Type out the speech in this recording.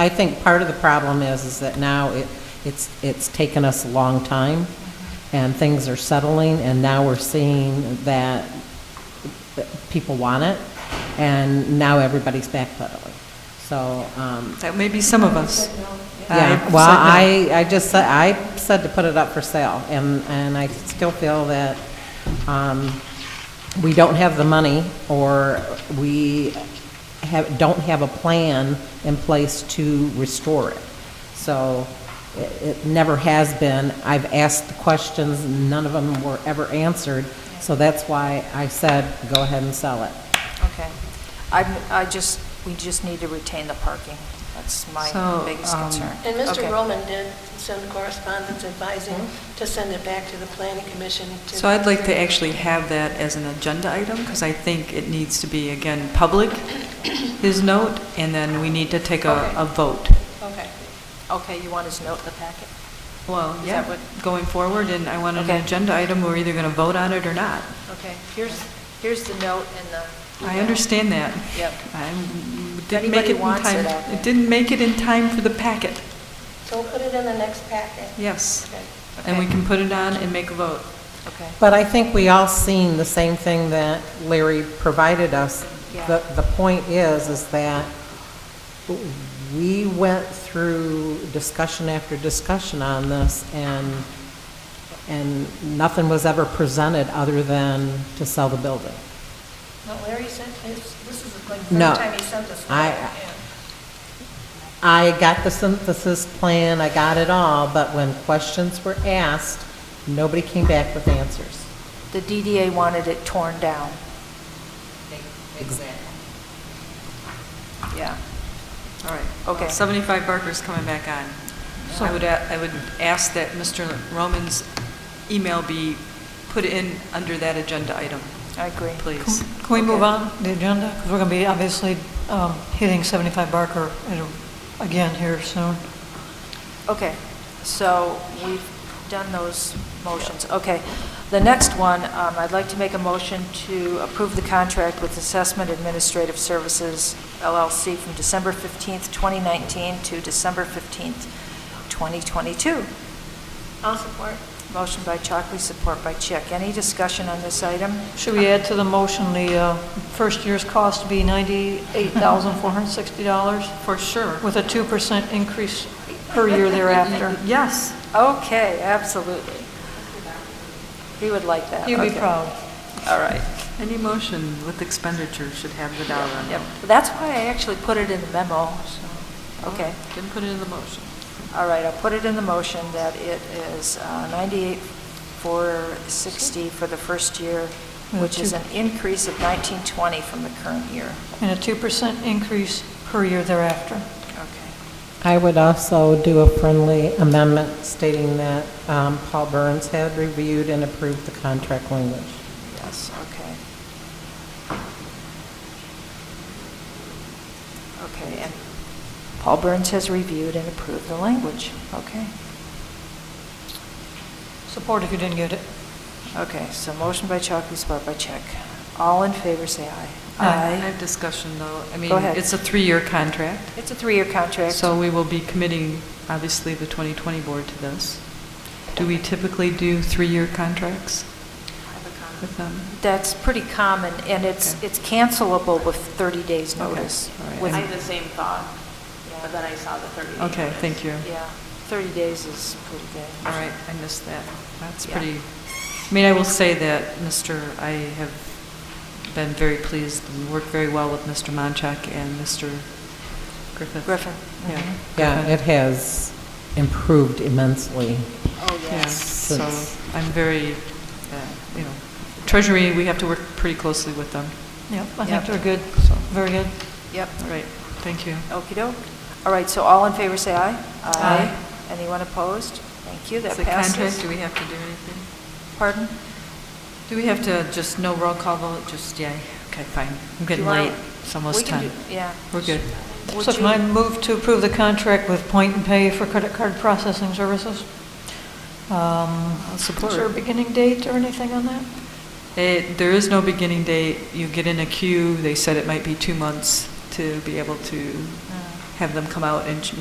I think part of the problem is, is that now it, it's, it's taken us a long time, and things are settling, and now we're seeing that people want it, and now everybody's backpedaling. So, um, That may be some of us. Uh, yeah, I- well, said I, I just said, I said to put it up for sale, and, and I still feel that, um, we don't have the money, or we have, don't have a plan in place to restore it. So, it, it never has been, I've asked the questions, none of them were ever answered, so that's why I said, go ahead and sell it. Okay. I, I just, we just need to retain the parking. That's my So, biggest um, concern. And Mr. Okay. Roman did send correspondence advising to send it back to the planning commission to... Mm-hmm. So I'd like to actually have that as an agenda item, because I think it needs to be, again, public, his note, and then we need to take a, Okay. a vote. Okay. Okay, you want his note in the packet? Well, Is that yeah, what- going forward, and I want an Okay. agenda item, we're either going to vote on it or not. Okay, here's, here's the note and the... I understand that. Yep. I didn't make anybody it in wants time. it out there. didn't make it in time for the packet, So put it in the next packet. yes. Okay. And we Okay. can put it on and make a vote. Okay. But I think we all seen the same thing that Larry provided us. Yeah. The, the point is, is that we went through discussion after discussion on this, and, and nothing was ever presented other than to sell the building. No, Larry sent this, this is like the No. third time he sent this. I- letter, yeah. I got the synthesis plan, I got it all, but when questions were asked, nobody came back with answers. The DDA wanted it torn down. Exactly. Yeah. All right. Okay. 75 Barker's coming back on. So I would, a- I would ask that Mr. Roman's email be put in under that agenda item, I agree. please. Can we move Okay. on the agenda? Because we're going to be obviously um, hitting 75 Barker at a- again here soon. Okay, so we've done those motions. Okay, the next one, um, I'd like to make a motion to approve the contract with Assessment Administrative Services LLC from December 15th, 2019 to December 15th, 2022. I'll support. Motion by Chalkley, support by Chick. Any discussion on this item? Should we add to the motion the uh, first year's cost to be $98,460 For sure. with a 2% increase per year thereafter? Uh, Yes. Okay, absolutely. He would like that. You'd be Okay. proud. All right. Any motion with expenditure should have the dollar Yep. amount. That's why I actually put it in the memo, so, okay. Didn't put it in the motion. All right, I'll put it in the motion that it is uh, 98,460 for the first year, With which is two- an increase of 1920 from the current year. And a 2% increase per year thereafter. Okay. I would also do a friendly amendment stating that um, Paul Burns had reviewed and approved the contract language. Yes, okay. Okay, and Paul Burns has reviewed and approved the language. Okay. Support if you didn't get it. Okay, so motion by Chalky, support by Chick. All in favor, say aye. I have discussion, though. I mean, ahead. it's a three-year contract, It's a three-year contract. so we will be committing, obviously, the 2020 board to this. Do we typically do three-year contracts with them? That's pretty common, and it's, Okay. it's cancelable with 30 days' Okay, notice. all right. with- I had the same thought, but Yeah. then I saw the 30 day Okay, notice. thank you. Yeah, 30 days is pretty good. All right, I missed that. That's Yeah. pretty, I mean, I will say that, Mr., I have been very pleased and worked very well with Mr. Monchak and Mr. Griffith. Griffin. Yeah. Mm-hmm. Yeah, it has improved immensely. Oh, Yeah, so Since- I'm very, uh, you know, Treasury, we have to work pretty closely with them. Yep, I Yep. think they're good, So- very good. Yep, All right, thank you. okey-doke. All right, so all in favor, say aye. Aye. Anyone opposed? Thank you, that Is the contract, passes. do we have to do anything? Pardon? Do we have to, just no roll call vote, just yay? Okay, fine. I'm Do you getting wanna- late, it's almost we can 10. do- Yeah. We're good. Would So you- can I move to approve the contract with Point and Pay for credit card processing services? Um, support. Is there a beginning date or anything on that? It, Eh, there is no beginning Uh. date. You get in a queue. They said it might be two months to be able to have them come out and ch-